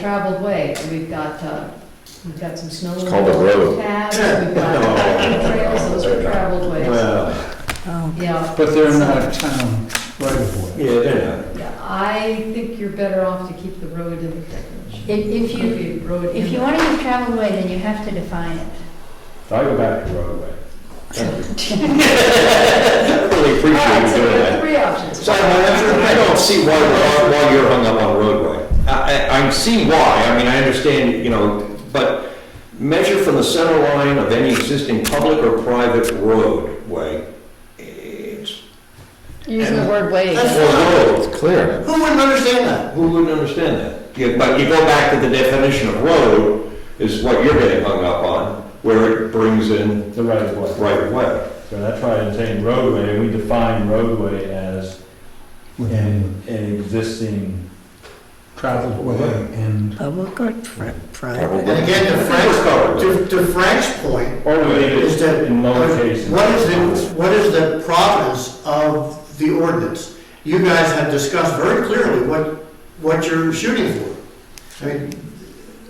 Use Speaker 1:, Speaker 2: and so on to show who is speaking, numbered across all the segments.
Speaker 1: traveled way. We've got, uh, we've got some snow.
Speaker 2: It's called a road.
Speaker 1: Paths, we've got hiking trails, those are traveled ways.
Speaker 3: Well,
Speaker 1: Yeah,
Speaker 4: But they're not town right of way.
Speaker 3: yeah, they're
Speaker 1: yeah, I think you're better off to keep the road in the definition.
Speaker 5: If
Speaker 1: Could
Speaker 5: you,
Speaker 1: be road
Speaker 5: if
Speaker 1: in
Speaker 5: you
Speaker 1: the-
Speaker 5: want to use travel way, then you have to define it.
Speaker 3: not. I go back to roadway.
Speaker 2: I really
Speaker 1: All right,
Speaker 2: appreciate you
Speaker 1: so we have
Speaker 2: doing that.
Speaker 1: three options.
Speaker 2: So I I don't see why, we're- why you're hung up on roadway. I, I, I see why, I mean, I understand, you know, but measure from the center line of any existing public or private roadway. It's-
Speaker 6: Using the word
Speaker 2: Or
Speaker 6: wave.
Speaker 2: road.
Speaker 4: It's clear.
Speaker 2: Who wouldn't understand that? Who wouldn't understand that? Yeah, But you go back to the definition of road is what you're getting hung up on, where it brings in
Speaker 3: The right of way.
Speaker 2: right of way.
Speaker 3: So that's why I'm saying roadway, and we define roadway as an, an existing.
Speaker 4: Traveled way and.
Speaker 7: Public or pri- private?
Speaker 8: And again, to Frank's, to- to Frank's point,
Speaker 3: Or we leave
Speaker 8: is
Speaker 3: it
Speaker 8: that,
Speaker 3: in lowercase.
Speaker 8: what is the, what is the province of the ordinance? You guys have discussed very clearly what, what you're shooting for. I mean,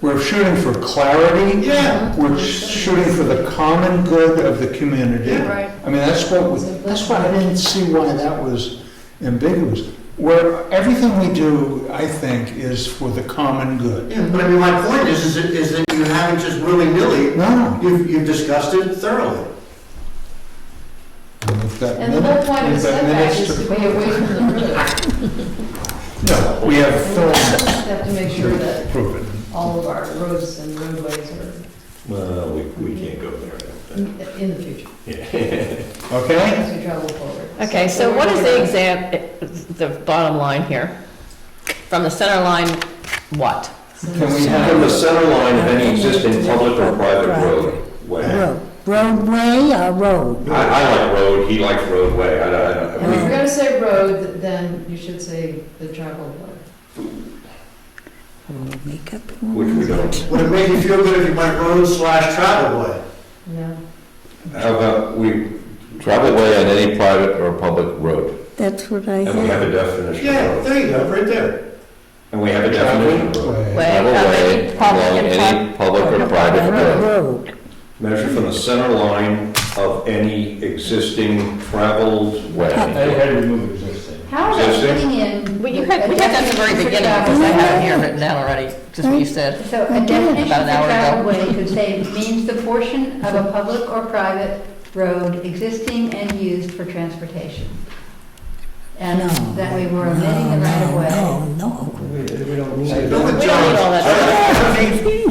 Speaker 4: We're shooting for clarity,
Speaker 8: yeah,
Speaker 4: we're shooting for the common good of the community.
Speaker 8: Yeah.
Speaker 6: Right.
Speaker 4: I mean, that's what, we- that's why I didn't see why that was ambiguous. Where, everything we do, I think, is for the common good.
Speaker 8: yeah, but I mean, my point is, is that, is that you haven't just willy-nilly,
Speaker 4: No,
Speaker 8: you've, you've discussed it thoroughly.
Speaker 4: we've got
Speaker 1: And the whole
Speaker 4: minutes,
Speaker 1: point of
Speaker 4: we've got
Speaker 1: setback
Speaker 4: minutes
Speaker 1: is
Speaker 4: to.
Speaker 1: to be away from the road.
Speaker 4: No, we have
Speaker 1: And we
Speaker 4: film
Speaker 1: just have to make sure that
Speaker 4: proof it.
Speaker 1: all of our roads and roadways are
Speaker 2: Well, we, we can't go there.
Speaker 1: in in the future,
Speaker 4: okay?
Speaker 1: as we travel forward.
Speaker 6: Okay, so what is the exam, eh, the bottom line here? From the center line, what?
Speaker 4: Can we
Speaker 2: From the
Speaker 4: have,
Speaker 2: center line of any existing public or private roadway.
Speaker 7: Road, roadway or road?
Speaker 2: I, I like road, he likes roadway, I don't, I don't. I
Speaker 1: If you're
Speaker 2: mean,
Speaker 1: gonna say road, then you should say the traveled way.
Speaker 7: We'll Make up.
Speaker 2: Which we don't.
Speaker 8: Would it make you feel good if you went road slash travel way?
Speaker 1: No,
Speaker 2: How about we,
Speaker 9: Travel way on any private or public road.
Speaker 7: That's what I
Speaker 2: and we
Speaker 7: had.
Speaker 2: have a definition of
Speaker 8: Yeah,
Speaker 2: road.
Speaker 8: there you go, right there.
Speaker 2: And we have a definition of road.
Speaker 4: Way.
Speaker 6: Way,
Speaker 9: Travel
Speaker 6: of
Speaker 9: way
Speaker 6: any public
Speaker 9: along
Speaker 6: and pri-
Speaker 9: any public or private
Speaker 7: Private
Speaker 9: road.
Speaker 7: road,
Speaker 2: Measure from the center line of any existing traveled
Speaker 3: I
Speaker 2: way.
Speaker 3: had to remove existing.
Speaker 5: How
Speaker 2: Is
Speaker 5: about
Speaker 2: that
Speaker 5: putting in?
Speaker 6: Well, you had, we had that at the very beginning, because I have it here written down already, just what you said.
Speaker 5: So a definition
Speaker 6: About
Speaker 5: of
Speaker 6: an hour ago.
Speaker 5: travel way could say means the portion of a public or private road existing and used for transportation. And
Speaker 7: No.
Speaker 5: that we were omitting the right of way.
Speaker 7: No, no,
Speaker 8: Don't
Speaker 6: We don't need all that.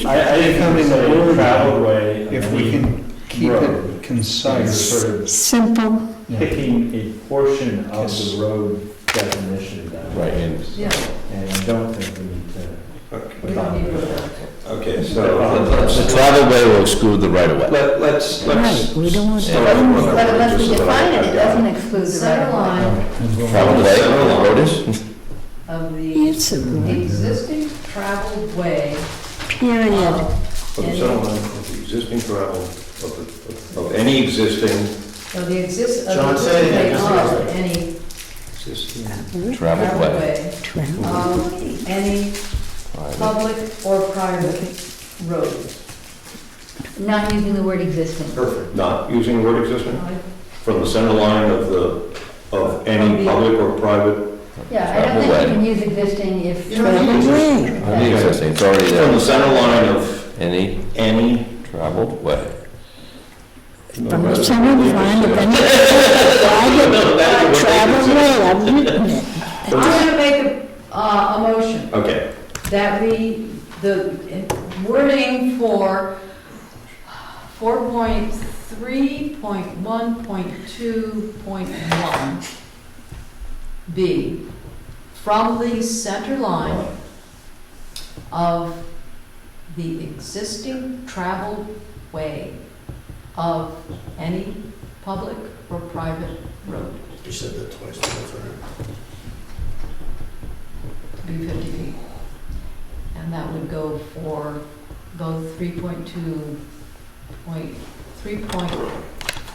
Speaker 3: I, I didn't come in the traveled way.
Speaker 4: If we can keep it
Speaker 3: Road. I'm
Speaker 4: concise.
Speaker 3: Sort
Speaker 7: no.
Speaker 3: of
Speaker 7: Simple,
Speaker 4: Yeah.
Speaker 3: picking a portion of the road definition down.
Speaker 9: Right, and
Speaker 1: yeah,
Speaker 3: And I don't think we need to.
Speaker 1: we don't need road.
Speaker 2: Okay, so let's,
Speaker 9: the travel way will exclude the right of way.
Speaker 2: let- let's,
Speaker 7: right,
Speaker 2: let's.
Speaker 7: we don't want
Speaker 2: start with
Speaker 7: to.
Speaker 2: one
Speaker 5: But unless we
Speaker 2: just so that I-
Speaker 5: define it, it
Speaker 2: I've got
Speaker 5: doesn't exclude the right
Speaker 1: Center
Speaker 5: of way.
Speaker 1: line
Speaker 9: Travel way, the road is?
Speaker 1: of the
Speaker 7: It's a
Speaker 1: existing traveled way
Speaker 7: period.
Speaker 1: of
Speaker 2: From the
Speaker 1: any-
Speaker 2: center line of the existing travel, of, the- of of any existing,
Speaker 1: of the exist, of the
Speaker 8: John said it, I
Speaker 1: existing
Speaker 8: just
Speaker 1: of
Speaker 8: realized.
Speaker 1: any
Speaker 9: Travel
Speaker 2: existing
Speaker 1: traveled
Speaker 9: way.
Speaker 1: way
Speaker 7: Travel.
Speaker 1: of any public or private road.
Speaker 5: Not using the word existing.
Speaker 2: Perfect. Not using the word existing? From the center line of the, of any public or private,
Speaker 5: Yeah, I don't think you can use existing if.
Speaker 8: You don't need
Speaker 7: Way,
Speaker 9: Any existing, it's already
Speaker 2: from the
Speaker 9: there.
Speaker 2: center line of
Speaker 9: Any
Speaker 2: any.
Speaker 9: traveled way.
Speaker 7: from the center line of any private or travel way, I've written it.
Speaker 1: I'm gonna make a, uh, a motion
Speaker 2: Okay,
Speaker 1: that we, the wording for four point three point one point two point one B, from the center line of the existing traveled way of any public or private road,
Speaker 8: You said that twice, that's all right.
Speaker 1: to be fifty feet. And that would go for both three point two point, three point,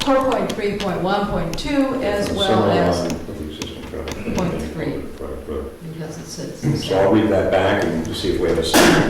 Speaker 1: four point three point one point two as
Speaker 2: From the
Speaker 1: well
Speaker 2: center
Speaker 1: as,
Speaker 2: line of the existing travel.
Speaker 1: Point three.
Speaker 2: Right, right.
Speaker 1: because it says.
Speaker 2: So I'll read that back and see if we have a second.